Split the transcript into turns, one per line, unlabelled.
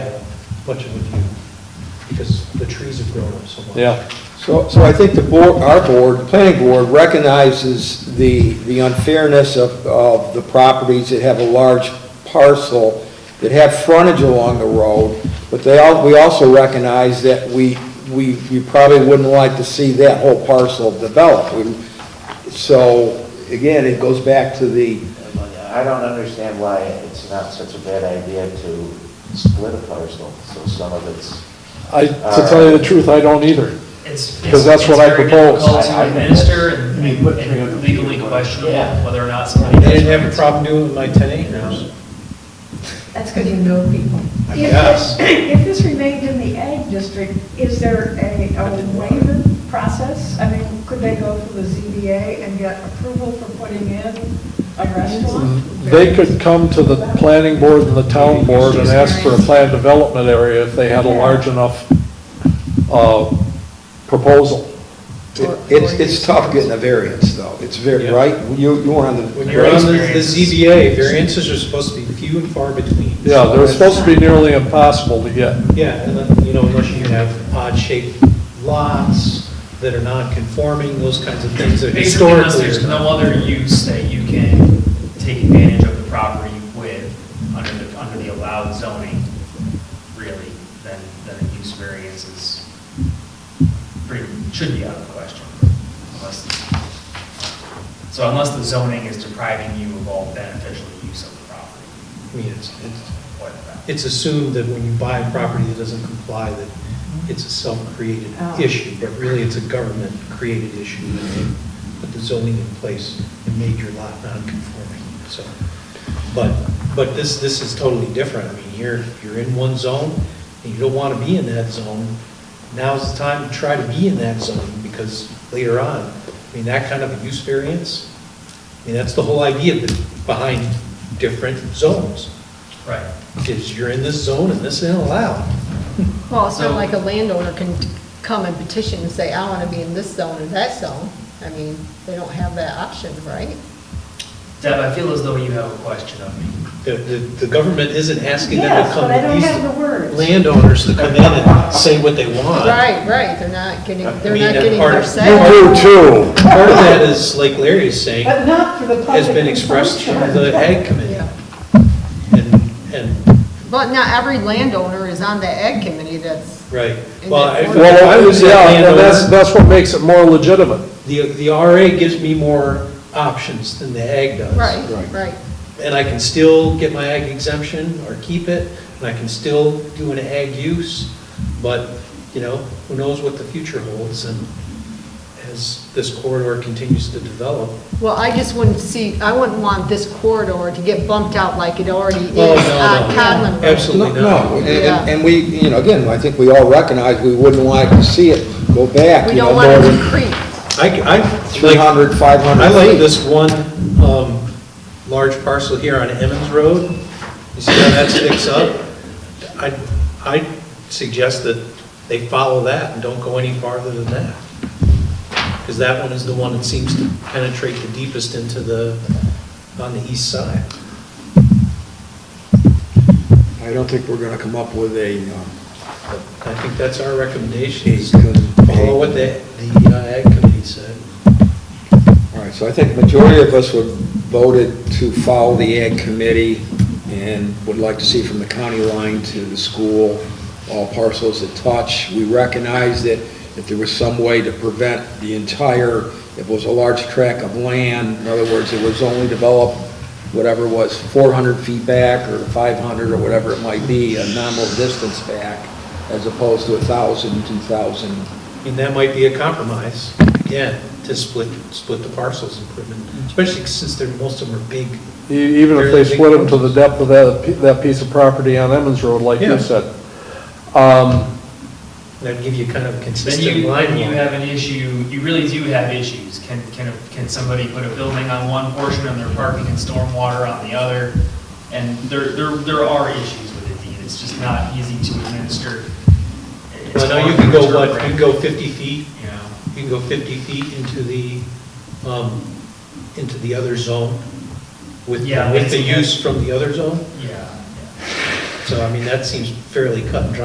much of a view, because the trees have grown up so much.
Yeah,
So, so I think the board, our board, the planning board recognizes the, the unfairness of, of the properties that have a large parcel, that have frontage along the road, but they all, we also recognize that we, we, we probably wouldn't like to see that whole parcel developed. We- So, again, it goes back to the,
I don't understand why it's not such a bad idea to split a parcel, so some of it's,
I, to tell you the truth, I don't either.
It's,
Because
it's
that's
it's
what I
very
proposed.
difficult
I- I
to
think
administer
that's-
and- and and legally questionable
Yeah.
whether or not somebody.
They
does
didn't have a
rights.
problem doing it with my ten acres.
That's because you know people.
I
If
guess.
this- If this remained in the ag district, is there a a waiver process? I mean, could they go through the ZBA and get approval for putting in a restaurant?
They could come to the planning board and the town board and ask for a planned development area if they had a large enough, uh, proposal.
it's, it's tough getting a variance, though. It's very,
Yeah.
right? You, you were on
When
the,
you're on the the
Variances.
ZBA, variances are supposed to be few and far between.
Yeah, they're supposed to be nearly impossible to get.
Yeah, and then, you know, unless you have odd-shaped lots that are non-conforming, those kinds of things that
Basically, unless
historically.
there's
are
no
not.
other use that you can take advantage of the property with under the, under the allowed zoning, really, then, then a use variance is pretty, should be out of the question. unless- So unless the zoning is depriving you of all beneficial use of the property.
I mean, it's, it's,
or the property.
it's assumed that when you buy a property that doesn't comply, that it's a self-created
Oh.
issue, but really it's a government-created issue that they put the zoning in place and made your lot non-conforming, so. But, but this, this is totally different. I mean, you're, you're in one zone, and you don't want to be in that zone. Now's the time to try to be in that zone, because later on, I mean, that kind of a use variance, I mean, that's the whole idea be- behind different zones
Right.
is you're in this zone and this isn't allowed.
Well, it's not
So-
like a landowner can t- come and petition and say, I want to be in this zone or that zone. I mean, they don't have that option, right?
Deb, I feel as though you have a question of me.
The, the, the government isn't asking them to
Yes,
come.
but I don't
these
have the words.
Landowners to come in and say what they want.
Right, right, they're not getting,
I
they're
mean,
not
that
getting
part-
their
you
say.
too.
Part of that is, like Larry is saying,
But not for the public.
has been expressed through
consumption.
the ag committee.
Yeah.
And, and,
But not every landowner is on the ag committee that's,
right.
And
Well,
that's
if
one-
I
Well,
was a
yeah, and that's,
landowner,
that's what makes it more legitimate.
the, the RA gives me more options than the ag does.
right,
Right.
right.
And I can still get my ag exemption or keep it, and I can still do an ag use, but, you know, who knows what the future holds, and as this corridor continues to develop.
Well, I just wouldn't see, I wouldn't want this corridor to get bumped out like it already is
Oh, no,
on
no.
Conlon Road.
Absolutely not.
No, and-
Yeah.
and, and we, you know, again, I think we all recognize we wouldn't like to see it go back,
We
you know,
don't
more
want it to
than
creep.
I, I, like,
300, 500
I like
feet.
this one, um, large parcel here on Emmons Road. You see how that sticks up? I, I suggest that they follow that and don't go any farther than that. Because that one is the one that seems to penetrate the deepest into the, on the east side.
I don't think we're going to come up with a, um,
But I think that's our recommendation, is to follow what the, the uh, ag committee said.
all right, so I think the majority of us would voted to follow the ag committee and would like to see from the county line to the school, all parcels that touch. We recognize that if there was some way to prevent the entire, if it was a large tract of land, in other words, it was only developed whatever was 400 feet back or 500 or whatever it might be, a nominal distance back, as opposed to 1,000, 2,000
And that might be a compromise, again, to split, split the parcels and put them
Mm-hmm.
in, especially since they're, most of them are big.
E- Even if they split them to the depth of that, pi- that piece of property on Emmons Road, like
Yeah.
you said. Um,
That'd give you kind of a
Then you,
consistent line.
then you have an issue, you really do have issues. Can, can, can somebody put a building on one portion and their parking and stormwater on the other? And there, there, there are issues with it, Dean. It's just not easy to administer. It's
Well, now you
hard
can
to
go, what, you can go
interpret,
50 feet,
You know,
you can go 50 feet into the, um, into the other zone with,
Yeah,
with the
that's-
use from the other zone.
yeah, yeah.
So, I mean, that seems fairly cut and dry.